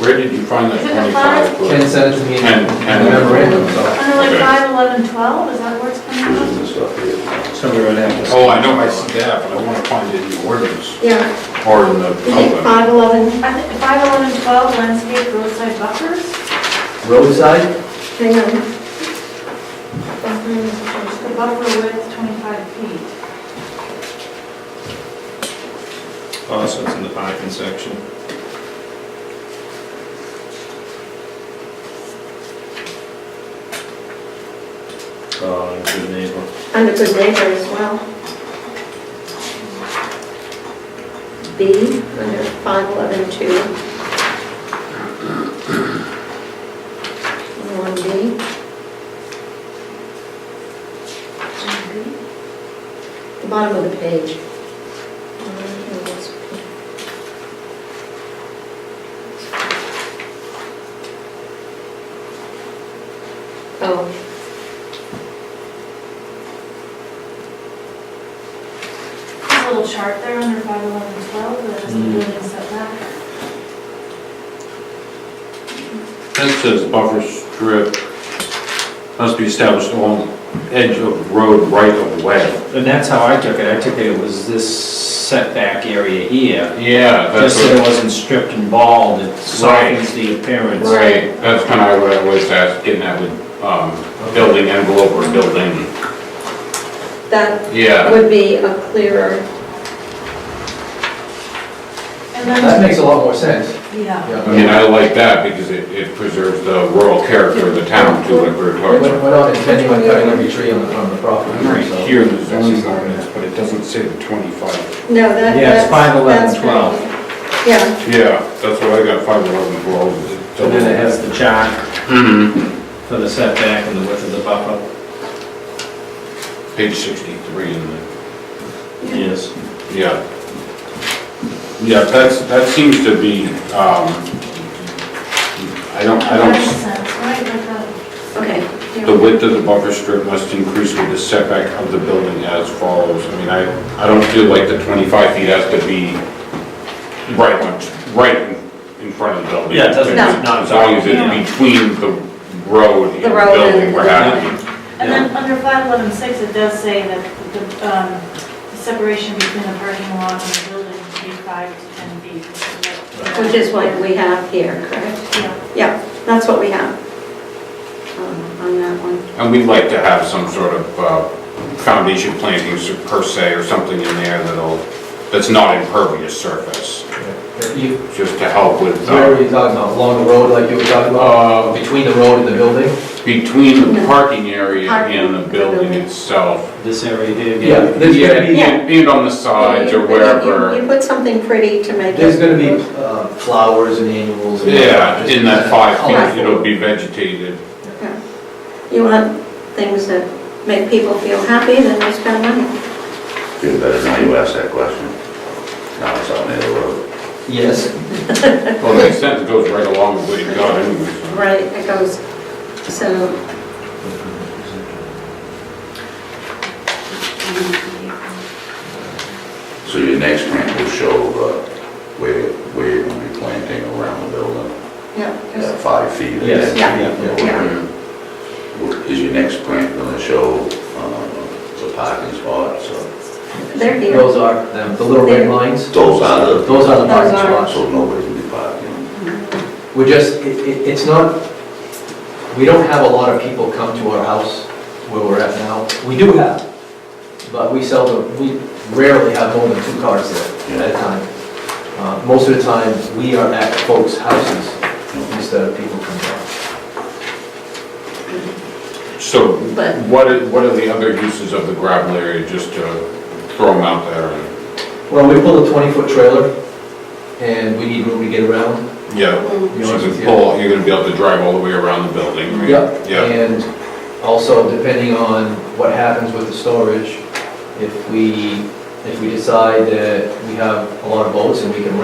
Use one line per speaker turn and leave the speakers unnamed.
Where did you find
Is
that
it the
25 foot?
Ken sent it to me in
Ken- Ken-
the memorandum, so.
Under like
Okay.
five, eleven, twelve, is that where it's coming up?
Somewhere in there.
Oh, I know, I see that, but I want to find it in the ordinance
Yeah,
or in the
is it
outline.
five eleven,
I think five, eleven, twelve landscape roadside buffers,
Roadside,
hang on. Buffer,
the buffer width twenty-five feet.
Also, it's in the parking section. Oh,
Uh,
and good neighbor.
Under good neighbor as well. B, under five eleven two. One B. The bottom of the page. Oh.
There's a little chart there under five, eleven, twelve, that has the building setback.
That says buffer strip must be established along edge of road right of way.
And that's how I took it, I took it, it was this setback area here.
Yeah, that's
Just so it
what,
wasn't stripped and bald, it softens the appearance.
right, that's kind of what I was ask- getting at with, um, building envelope or building,
That
yeah.
would be a clearer,
And
that
then,
makes a lot more sense.
yeah.
I
Yeah.
mean, I like that because it, it preserves the rural character of the town too, like we were
We're
talking about.
we're not intending on cutting every tree on the, on the property,
Right
so.
here in the zoning ordinance, but it doesn't say the twenty-five.
no, that, that's...
Yeah, it's 5, 11,
that's
12.
right. Yeah,
Yeah, that's what I got, five eleven twelve.
So then it has the chart
Mhm.
for the setback and the width of the buffer.
Page sixty-three in there.
Yes.
Yeah. Yeah, that's, that seems to be, um, I don't, I
That makes
don't,
sense, right, uh, like that.
okay. yeah.
the width of the buffer strip must increase with the setback of the building as follows. I mean, I, I don't feel like the twenty-five feet has to be right on, right in- in front of the building.
Yeah, it doesn't-
No.
As long as it's between the road and
The
the
road and
building we're
the-
having.
And then under five, eleven, six, it does say that the, um, the separation between the parking lot and the building should be five to ten feet.
Which is what we have here, correct?
Yeah,
Yeah, that's what we have um, on that one.
And we'd like to have some sort of uh, foundation plantings per se or something in there that'll, that's not impervious surface.
You-
just to help with,
Where
uh,
were you talking about, along the road like you were talking about,
uh,
between the road and the building?
between the parking area and the building itself.
This area here.
Yeah. There's
Yeah,
gonna be-
and and on the sides or
You- you- You
wherever,
put something pretty to make it...
There's gonna be uh, flowers and annuals. and-
yeah, in that five
Colorful.
feet, it'll be vegetated.
Yeah. You want things that make people feel happy, then you spend money.
Do better now you ask that question. Now it's on the other road.
Yes,
Well, the extent it goes right along with what you got anyway.
Right, it goes, so...
So your next grant will show uh, where, where you're gonna be planting around the building,
Yeah.
that five feet. and
Yes,
that-
Yeah. yeah.
Is your next grant gonna show uh, the parking spots or
They're here.
those are, them, the little red lines,
those are the,
those are the parking
Those are-
spots.
so nobody can be parking?
We're just, it, it- it's not, we don't have a lot of people come to our house where we're at now. We do have, but we seldom, we rarely have more than two cars there at a time. Uh, Most of the time, we are at folks' houses instead of people coming out.
So
But-
what are, what are the other uses of the gravel area, just to throw them out there?
Well, we pulled a twenty-foot trailer and we need room to get around.
Yeah,
to
so
Mm.
be honest
you can
with you.
pull, you're gonna be able to drive all the way around the building, right?
Yep,
Yeah,
and also depending on what happens with the storage, if we, if we decide that we have a lot of boats and we can rent